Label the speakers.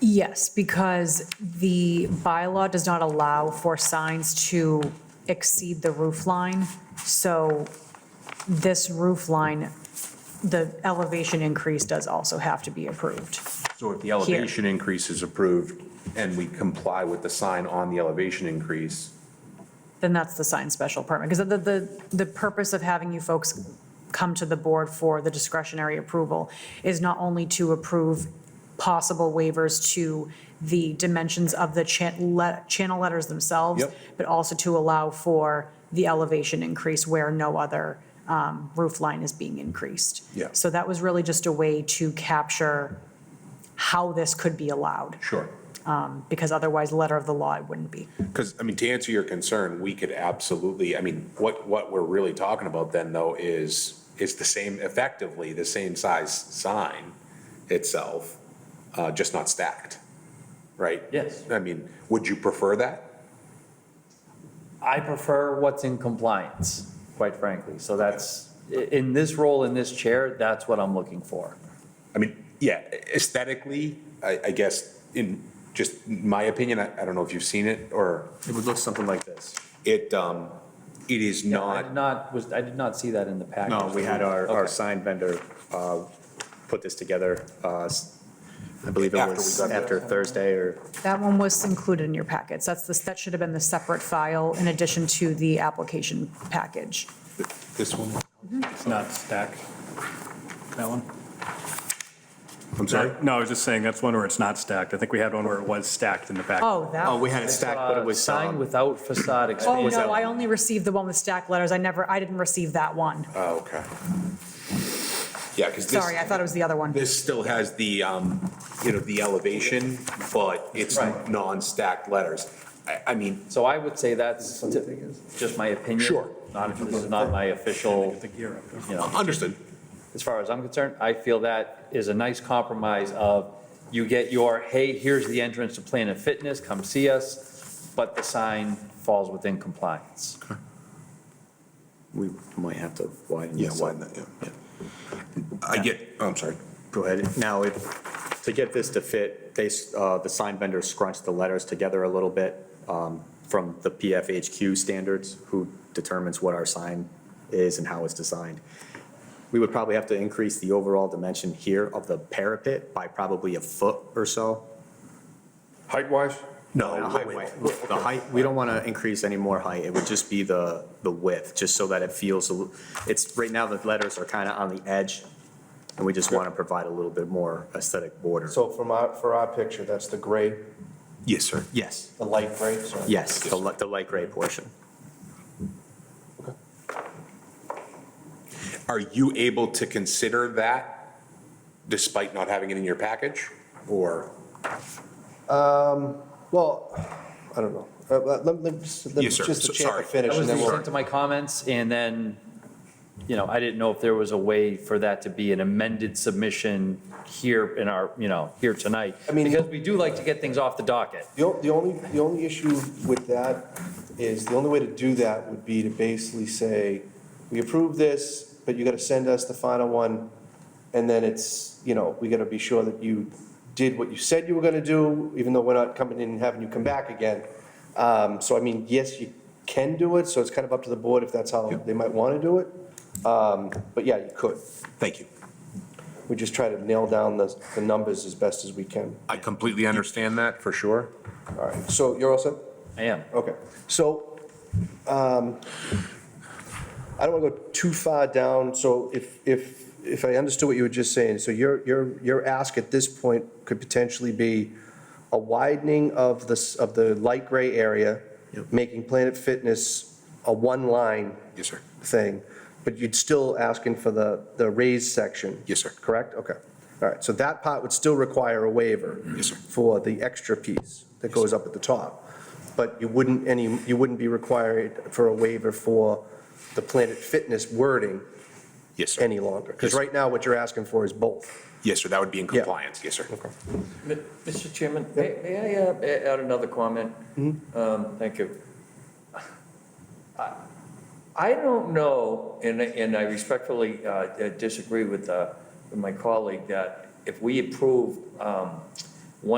Speaker 1: Yes, because the bylaw does not allow for signs to exceed the roof line. So this roof line, the elevation increase does also have to be approved.
Speaker 2: So if the elevation increase is approved and we comply with the sign on the elevation increase,
Speaker 1: Then that's the sign special permit. Because the, the, the purpose of having you folks come to the board for the discretionary approval is not only to approve possible waivers to the dimensions of the chan, le, channel letters themselves.
Speaker 2: Yep.
Speaker 1: But also to allow for the elevation increase where no other, um, roof line is being increased.
Speaker 2: Yeah.
Speaker 1: So that was really just a way to capture how this could be allowed,
Speaker 2: sure.
Speaker 1: um, because otherwise, letter of the law, it wouldn't be.
Speaker 2: Because, I mean, to answer your concern, we could absolutely, I mean, what, what we're really talking about then though is, is the same, effectively the same size sign itself, uh, just not stacked, right?
Speaker 3: Yes.
Speaker 2: I mean, would you prefer that?
Speaker 3: I prefer what's in compliance, quite frankly. So that's, i- in this role, in this chair, that's what I'm looking for.
Speaker 2: I mean, yeah, aesthetically, I, I guess, in just my opinion, I, I don't know if you've seen it or
Speaker 3: It would look something like this.
Speaker 2: it, um, it is
Speaker 3: I
Speaker 2: not.
Speaker 3: did not, was, I did not see that in the package.
Speaker 4: No, we had our, our
Speaker 3: Okay.
Speaker 4: sign vendor uh, put this together, uh, s- I believe it
Speaker 2: After we
Speaker 4: was
Speaker 2: got the-
Speaker 4: after Thursday or,
Speaker 1: That one was included in your packets. That's the, that should have been the separate file in addition to the application package.
Speaker 2: This one?
Speaker 5: It's not stacked, that one?
Speaker 2: I'm sorry?
Speaker 5: No, I was just saying, that's one where it's not stacked. I think we had one where it was stacked in the back.
Speaker 1: Oh, that.
Speaker 4: oh, we had it stacked, but it
Speaker 3: Uh,
Speaker 4: was.
Speaker 3: Sign
Speaker 4: um,
Speaker 3: without facade
Speaker 1: Oh,
Speaker 3: expansion.
Speaker 1: no, I only received the one with stacked letters. I never, I didn't receive that one.
Speaker 2: Oh, okay. Yeah, because this.
Speaker 1: Sorry, I thought it was the other one.
Speaker 2: This still has the, um, you know, the elevation, but it's
Speaker 3: Right.
Speaker 2: non-stacked letters. I, I mean,
Speaker 3: So I would say that's ti- just my opinion.
Speaker 2: Sure.
Speaker 3: Not, this is not my official,
Speaker 5: The gear up.
Speaker 3: you know.
Speaker 2: understood.
Speaker 3: as far as I'm concerned, I feel that is a nice compromise of, you get your, hey, here's the entrance to Planet Fitness, come see us, but the sign falls within compliance.
Speaker 4: We might have to widen
Speaker 2: Yeah,
Speaker 4: this.
Speaker 2: widen that, yeah, yeah. I get, oh, I'm sorry.
Speaker 4: Go ahead. Now, if, to get this to fit, they, s- uh, the sign vendor scrunched the letters together a little bit um, from the PFHQ standards, who determines what our sign is and how it's designed. We would probably have to increase the overall dimension here of the parapet by probably a foot or so.
Speaker 6: Height-wise?
Speaker 4: No, the height, the height, we don't want to increase any more height, it would just be the, the width, just so that it feels, a l- it's, right now, the letters are kind of on the edge, and we just want to provide a little bit more aesthetic border.
Speaker 6: So from our, for our picture, that's the gray,
Speaker 2: Yes, sir.
Speaker 4: Yes,
Speaker 6: the light gray, so.
Speaker 4: yes, the li- the light gray portion.
Speaker 2: Are you able to consider that despite not having it in your package? Or,
Speaker 6: Well, I don't know. Uh, Let, let, let- let-
Speaker 2: Yes, sir. So-
Speaker 6: just the chance to
Speaker 2: sorry.
Speaker 3: That
Speaker 6: finish
Speaker 3: was
Speaker 6: and then
Speaker 3: just
Speaker 6: we'll.
Speaker 3: into my comments, and then, you know, I didn't know if there was a way for that to be an amended submission here in our, you know, here tonight.
Speaker 6: I mean-
Speaker 3: Because we do like to get things off the docket.
Speaker 6: The o- the only, the only issue with that is, the only way to do that would be to basically say, we approve this, but you gotta send us the final one, and then it's, you know, we gotta be sure that you did what you said you were gonna do, even though we're not coming in and having you come back again. Um, so I mean, yes, you can do it, so it's kind of up to the board if that's how they might wanna do it. Um, but yeah, you could.
Speaker 2: thank you.
Speaker 6: We just try to nail down the, the numbers as best as we can.
Speaker 2: I completely understand that, for sure.
Speaker 6: All right, so you're all set?
Speaker 3: I am.
Speaker 6: Okay, so, um, I don't want to go too far down, so if, if, if I understood what you were just saying, so your, your, your ask at this point could potentially be a widening of the, s- of the light gray area, making Planet Fitness a one-line
Speaker 2: Yes, sir.
Speaker 6: thing, but you'd still asking for the, the raised section?
Speaker 2: Yes, sir.
Speaker 6: Correct? Okay. All right, so that part would still require a waiver?
Speaker 2: Yes, sir.
Speaker 6: For the extra piece that goes up at the top? But you wouldn't any, you wouldn't be required for a waiver for the Planet Fitness wording
Speaker 2: Yes, sir.
Speaker 6: any longer? Because right now, what you're asking for is both.
Speaker 2: Yes, sir, that would be in
Speaker 6: Yeah.
Speaker 2: compliance, yes, sir.
Speaker 3: M- Mr. Chairman, may may I uh, a- add another comment?
Speaker 6: Mm-hmm.
Speaker 3: Um, Thank you. I- I don't know, and I- and I respectfully uh, uh, disagree with uh, with my colleague, that if we approve um,